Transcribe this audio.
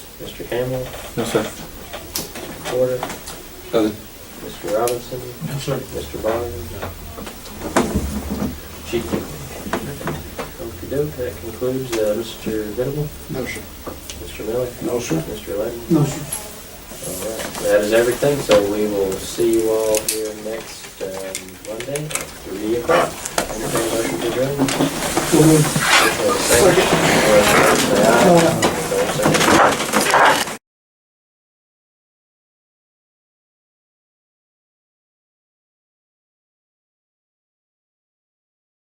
Mr. Campbell, No, sir. Porter, Uh, Mr. Robinson, No, sir. Mr. Bonner. Chief. Okey-doke, that concludes, uh, Mr. Venable, No, sir. Mr. Miller, No, sir. Mr. Layton. No, sir. All right, that is everything, so we will see you all here next, um, Monday at three o'clock. Entertained motion to adjourn? So moved. Okay, thank you. All right, uh, say aye.